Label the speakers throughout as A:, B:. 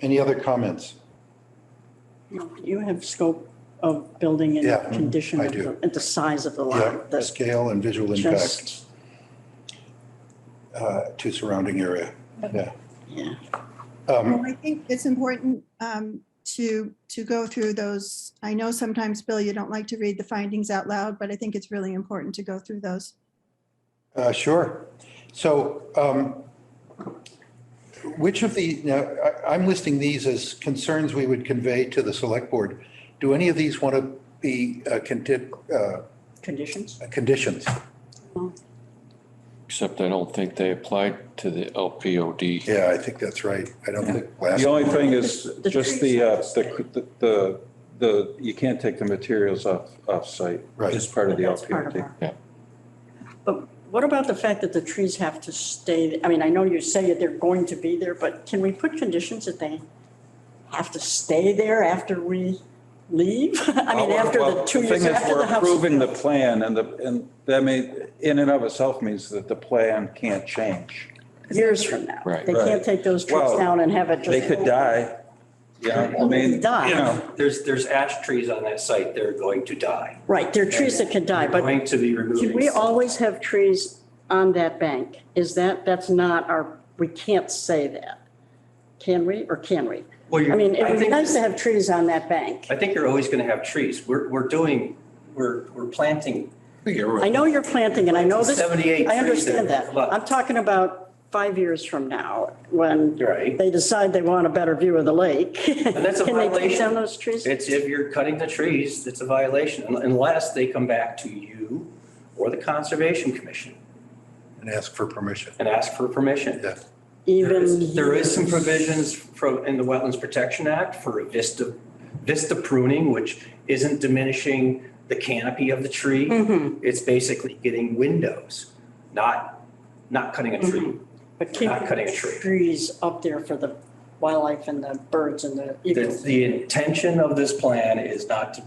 A: Any other comments?
B: You have scope of building and
A: Yeah,
B: condition
A: I
B: of
A: do.
B: the- and the size of the
A: Yeah,
B: lot.
A: the
B: That's
A: scale and visual impact
B: just,
A: uh, to surrounding area. Yeah.
B: yeah.
A: Um,
C: Well, I think it's important um, to, to go through those. I know sometimes, Bill, you don't like to read the findings out loud, but I think it's really important to go through those.
A: uh, Sure. So um, which of the, now, I- I'm listing these as concerns we would convey to the select board. Do any of these want to be uh, conti- uh,
B: Conditions?
A: conditions?
D: Except I don't think they applied to the LPOD.
A: Yeah, I think that's right. I don't think last.
E: The only thing is
B: The
E: just
B: tree
E: the, uh,
B: size.
E: the, the, the, you can't take the materials off, off-site.
A: Right.
E: It's part of the
B: That's part of
E: LPRD.
B: our-
D: Yeah.
B: But what about the fact that the trees have to stay? I mean, I know you say that they're going to be there, but can we put conditions that they have to stay there after we leave? I mean, after
E: Well,
B: the two years,
E: thing is,
B: after
E: we're
B: the house. is
E: Approving the
B: built.
E: plan and the, and that may, in and of itself means that the plan can't change.
B: Years from now.
D: Right.
B: They
E: Right.
B: can't take those trees
E: Well,
B: down and have it just.
E: They could die. Yeah, I mean,
B: Die.
E: you know,
F: There's, there's ash trees on that site, they're going to die.
B: Right, there are trees that can die,
F: They're
B: but
F: Going to be removed.
B: Should we always have trees on that bank? Is that, that's not our, we can't say that. Can we, or can we?
F: Well, you're-
B: I mean, it
F: I
B: would be
F: think-
B: nice to have trees on that bank.
F: I think you're always going to have trees. We're, we're doing, we're, we're planting.
B: I know you're planting, and I know this,
F: Seventy-eight trees.
B: I understand
F: there.
B: that.
F: Look,
B: I'm talking about five years from now, when
F: Right.
B: they decide they want a better view of the lake.
F: And that's a
B: Can they take
F: violation.
B: down those trees?
F: It's if you're cutting the trees, it's a violation un- unless they come back to you or the Conservation Commission
A: And ask for permission.
F: and ask for permission.
A: Yeah.
F: There
B: Even.
F: is- there is some provisions from, in the Wetlands Protection Act for a vista, vista pruning, which isn't diminishing the canopy of the
B: Mm-hmm.
F: tree. It's basically getting windows, not, not cutting a tree.
B: But keeping
F: Not cutting a tree.
B: Trees up there for the wildlife and the birds and the
F: The,
B: eagles.
F: the intention of this plan is not to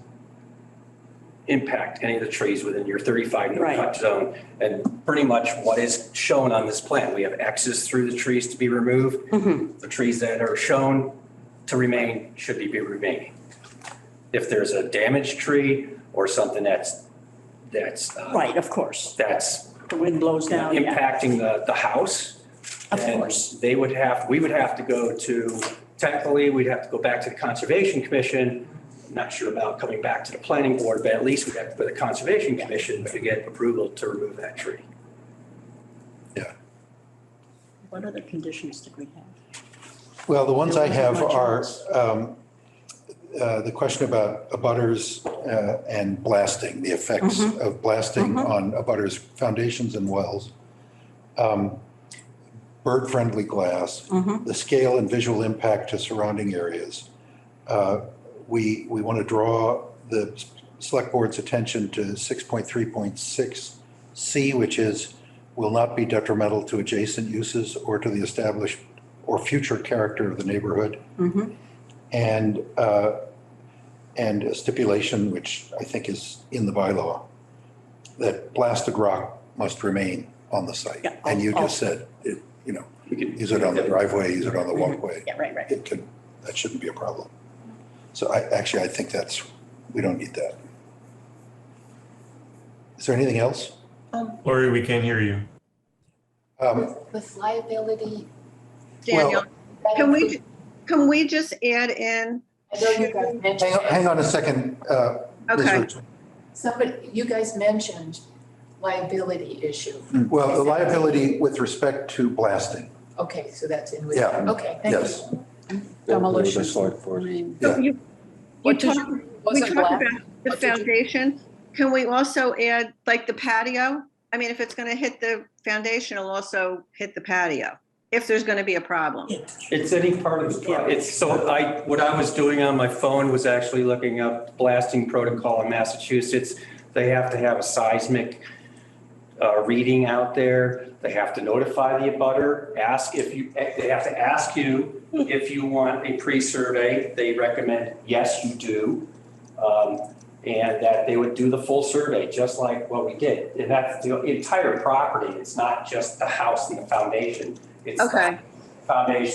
F: impact any of the trees within your thirty-five no
B: Right.
F: cut zone. And pretty much what is shown on this plan, we have X's through the trees to be removed.
B: Mm-hmm.
F: The trees that are shown to remain should be remaining. If there's a damaged tree or something that's, that's, uh,
B: Right, of course.
F: that's
B: The wind blows down, yeah.
F: impacting the, the house.
B: Of
F: then
B: course.
F: They would have, we would have to go to, technically, we'd have to go back to the Conservation Commission. Not sure about coming back to the planning board, but at least we'd have to go to the Conservation Commission to get approval to remove that tree.
B: What other conditions did we have?
A: Well, the ones I
B: There
A: have
B: wasn't much
A: are
B: else.
A: um, uh, the question about abutters uh, and blasting, the effects
B: Mm-hmm.
A: of blasting on abutters' foundations and wells, um, bird-friendly glass,
B: Mm-hmm.
A: the scale and visual impact to surrounding areas. Uh, We, we want to draw the s- select board's attention to 6.3.6C, which is will not be detrimental to adjacent uses or to the established or future character of the neighborhood.
B: Mm-hmm.
A: And, uh, and a stipulation, which I think is in the bylaw, that blasted rock must remain on the site.
B: Yeah,
A: And you
B: I'll- Mm-hmm.
A: just said, it, you know,
F: We could-
A: use it on the driveway, use it on the walkway.
B: Yeah, right, right.
A: It could, that shouldn't be a problem. So I, actually, I think that's, we don't need that. Is there anything else?
G: Um,
H: Lori, we can't hear you.
A: Um,
G: with- with liability,
A: Well,
I: Daniel, can we, can we just add in,
G: I know you guys mentioned.
A: Hang on, hang on a second. uh, Ms.
I: Okay.
A: Richardson.
G: Somebody, you guys mentioned liability issue.
A: Well, the liability with respect to blasting.
G: Okay, so that's in with,
A: Yeah.
G: okay, thank
A: Yes.
G: you.
E: They're the select board.
A: Yeah.
I: you, you
G: What does,
I: talk, we talked
G: wasn't
I: about
G: black?
I: the
G: What did you-
I: foundation, can we also add like the patio? I mean, if it's gonna hit the foundation, it'll also hit the patio, if there's gonna be a problem.
F: It's any part of the, pro- it's, so I, what I was doing on my phone was actually looking up blasting protocol in Massachusetts. They have to have a seismic uh, reading out there. They have to notify the abutter, ask if you, eh, they have to ask you if you want a pre-survey. They recommend, yes, you do. Um, And that they would do the full survey, just like what we did. And that's the entire property. It's not just the house and the foundation. It's the
I: Okay.
F: Foundation